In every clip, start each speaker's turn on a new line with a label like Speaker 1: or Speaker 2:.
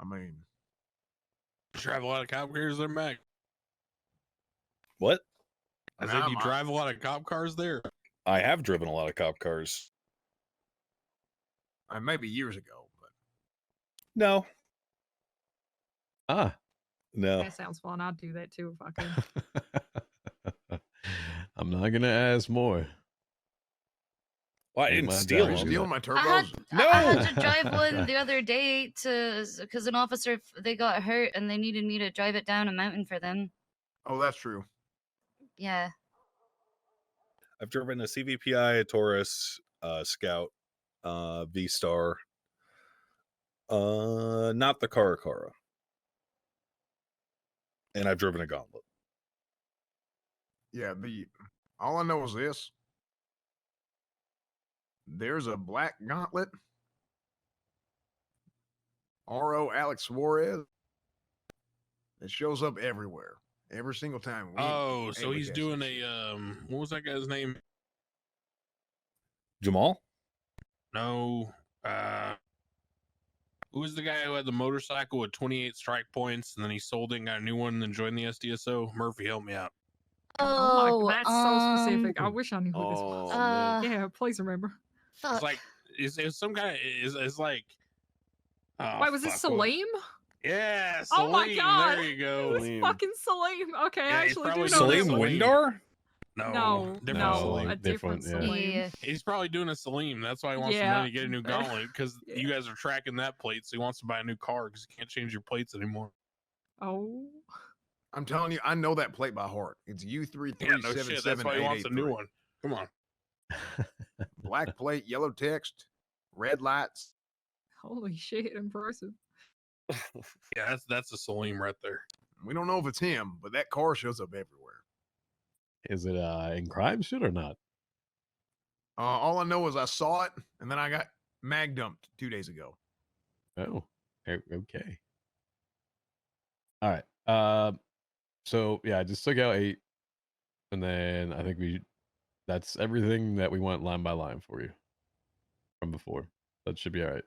Speaker 1: I mean,
Speaker 2: You drive a lot of cop cars there, Mac.
Speaker 3: What?
Speaker 2: I
Speaker 1: Nah,
Speaker 2: said you
Speaker 1: my-
Speaker 2: drive a lot of cop cars there.
Speaker 3: I have driven a lot of cop cars.
Speaker 1: uh, maybe years ago, but
Speaker 3: No,
Speaker 4: Ah.
Speaker 3: no.
Speaker 2: Oh.
Speaker 5: That sounds fun. I'd do that too if I could.
Speaker 4: I'm not going to ask more.
Speaker 3: Well, I
Speaker 4: You
Speaker 3: didn't
Speaker 4: might
Speaker 3: steal
Speaker 4: die.
Speaker 1: you
Speaker 4: Well,
Speaker 3: them.
Speaker 1: steal my
Speaker 6: I had,
Speaker 1: turbos.
Speaker 3: No!
Speaker 6: I had to drive one the other day to because an officer f- they got hurt and they needed me to drive it down a mountain for them.
Speaker 1: Oh, that's true.
Speaker 6: Yeah,
Speaker 3: I've driven a CVPI, a Taurus, uh, Scout, uh, V Star. Uh, not the Caracara. And I've driven a Gauntlet.
Speaker 1: Yeah, the all I know is this. There's a black gauntlet. R.O. Alex Suarez. It shows up everywhere. Every single time. We ain't
Speaker 2: Oh, so
Speaker 1: able to
Speaker 2: he's
Speaker 1: catch
Speaker 2: doing
Speaker 1: this.
Speaker 2: a um. What was that guy's name?
Speaker 3: Jamal?
Speaker 2: No. Uh, who was the guy who had the motorcycle with 28 strike points and then he sold it and got a new one and then joined the SDSO? Murphy, help me out.
Speaker 5: Oh,
Speaker 6: Oh,
Speaker 5: my, that's so specific. I
Speaker 4: um,
Speaker 5: wish I knew who this
Speaker 2: Oh.
Speaker 5: was.
Speaker 6: uh,
Speaker 5: yeah, please remember.
Speaker 6: fuck.
Speaker 2: It's like, it's, it's some kind of, it's, it's like. Oh,
Speaker 5: Wait, was
Speaker 2: fuck,
Speaker 5: this
Speaker 2: what-
Speaker 5: Salim?
Speaker 2: Yeah,
Speaker 5: Oh my
Speaker 2: Salim,
Speaker 5: God.
Speaker 2: There you
Speaker 5: It
Speaker 2: go.
Speaker 5: was
Speaker 4: Salim.
Speaker 5: fucking Salim. Okay, I
Speaker 2: Yeah, he's
Speaker 5: actually do know
Speaker 2: probably
Speaker 5: that
Speaker 2: Salim
Speaker 5: one.
Speaker 2: Win-
Speaker 3: Windar?
Speaker 2: No,
Speaker 5: No,
Speaker 2: different
Speaker 5: no,
Speaker 2: Salim.
Speaker 4: Salim,
Speaker 5: a different,
Speaker 4: different, yeah.
Speaker 5: Salim.
Speaker 6: yeah.
Speaker 2: He's probably doing a Salim. That's why he wants
Speaker 5: Yeah.
Speaker 2: the money to get a new gauntlet because
Speaker 5: Yeah.
Speaker 2: you guys are tracking that plate. So he wants to buy a new car because he can't change your plates anymore.
Speaker 5: Oh,
Speaker 1: I'm telling you, I know that plate by heart. It's U three
Speaker 2: Yeah,
Speaker 1: three
Speaker 2: no
Speaker 1: seven
Speaker 2: shit. That's
Speaker 1: seven
Speaker 2: why he
Speaker 1: eight
Speaker 2: wants
Speaker 1: eight
Speaker 2: a new
Speaker 1: three.
Speaker 2: one. Come on.
Speaker 1: Black plate, yellow text, red lights.
Speaker 5: holy shit! Impressive.
Speaker 2: Yeah, that's that's a Salim right there.
Speaker 1: We don't know if it's him, but that car shows up everywhere.
Speaker 4: Is it uh, in crime shit or not?
Speaker 1: Uh, all I know is I saw it, and then I got mag dumped two days ago.
Speaker 4: Oh, o- okay. All right. Uh, so yeah, I just took out eight, and then I think we that's everything that we want line by line for you from before. That should be all right.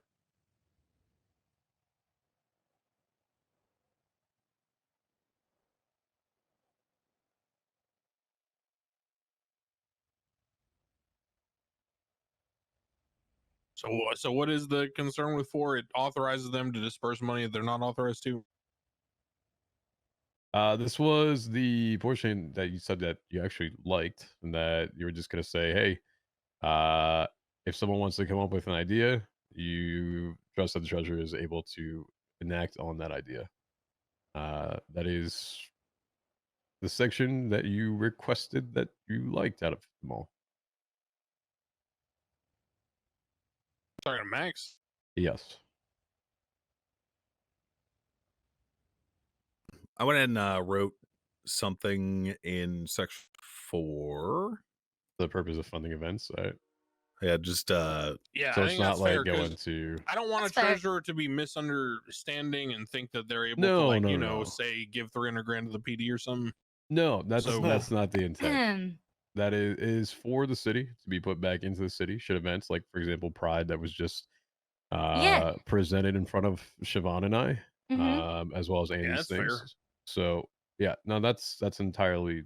Speaker 2: So wha- so what is the concern with four? It authorizes them to disperse money that they're not authorized to.
Speaker 4: Uh, this was the portion that you said that you actually liked, and that you were just gonna say, "Hey, uh, if someone wants to come up with an idea, you trust that the treasurer is able to enact on that idea." Uh, that is the section that you requested that you liked out of them all.
Speaker 2: Talking to Max.
Speaker 4: Yes.
Speaker 3: I went and uh, wrote something in section four.
Speaker 4: The purpose of funding events, right?
Speaker 3: Yeah, just uh,
Speaker 2: Yeah,
Speaker 4: so
Speaker 2: I
Speaker 4: it's
Speaker 2: think
Speaker 4: not
Speaker 2: that's
Speaker 4: like
Speaker 2: fair 'cause
Speaker 4: going to.
Speaker 2: I don't want
Speaker 6: That's
Speaker 2: a
Speaker 6: fair.
Speaker 2: treasurer to be misunderstanding and think that they're able to
Speaker 4: No,
Speaker 2: like
Speaker 4: no,
Speaker 2: you know
Speaker 4: no.
Speaker 2: say give three hundred grand to the PD or something.
Speaker 4: No, that's
Speaker 2: So-
Speaker 4: that's not the intent.
Speaker 6: Ahem.
Speaker 4: that is, is for the city to be put back into the city should events like for example pride that was just uh
Speaker 6: Yeah.
Speaker 4: presented in front of siobhan and i
Speaker 6: Mhm.
Speaker 4: um as well as andy's
Speaker 2: Mm-hmm. that's fair.
Speaker 4: things so yeah no that's that's entirely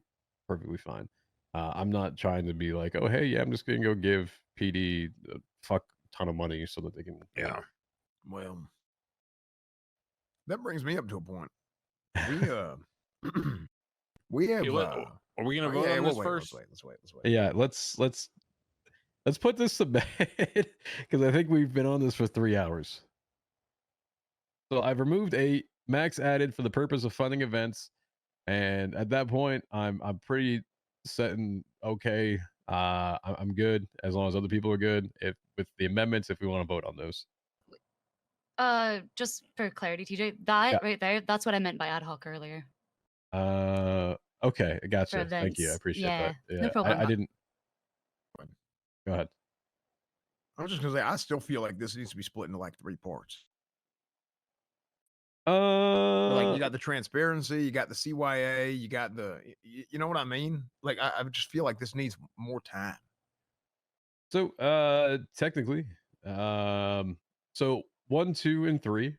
Speaker 4: perfectly fine uh, i'm not trying to be like oh hey yeah i'm just gonna go give pd a fuck ton of money so that they can
Speaker 1: Well, that brings me up to a point. We uh, we have.
Speaker 2: Yeah, let-
Speaker 1: uh,
Speaker 2: Are we gonna
Speaker 1: oh,
Speaker 2: vote
Speaker 1: yeah,
Speaker 2: on
Speaker 1: we'll
Speaker 2: this
Speaker 1: wait,
Speaker 2: first?
Speaker 1: Let's wait. Let's wait. Let's wait.
Speaker 4: yeah let's let's let's put this to bed because i think we've been on this for three hours so i've removed eight max added for the purpose of funding events and at that point i'm i'm pretty set and okay uh I- i'm good as long as other people are good if with the amendments if we want to vote on those
Speaker 6: Uh, just for clarity, TJ, that
Speaker 4: Yeah.
Speaker 6: right there, that's what I meant by ad hoc earlier.
Speaker 4: uh okay I gotcha thank you i
Speaker 6: events,
Speaker 4: appreciate that
Speaker 6: yeah, no
Speaker 4: yeah I, I
Speaker 6: problem.
Speaker 4: didn't go ahead
Speaker 1: I was just gonna say I still feel like this needs to be split into like three parts.
Speaker 4: uh
Speaker 1: like you got the transparency, you got the CYA, you got the. y- y- You know what I mean? Like I, I just feel like this needs more time.
Speaker 4: So uh technically, um so one, two, and three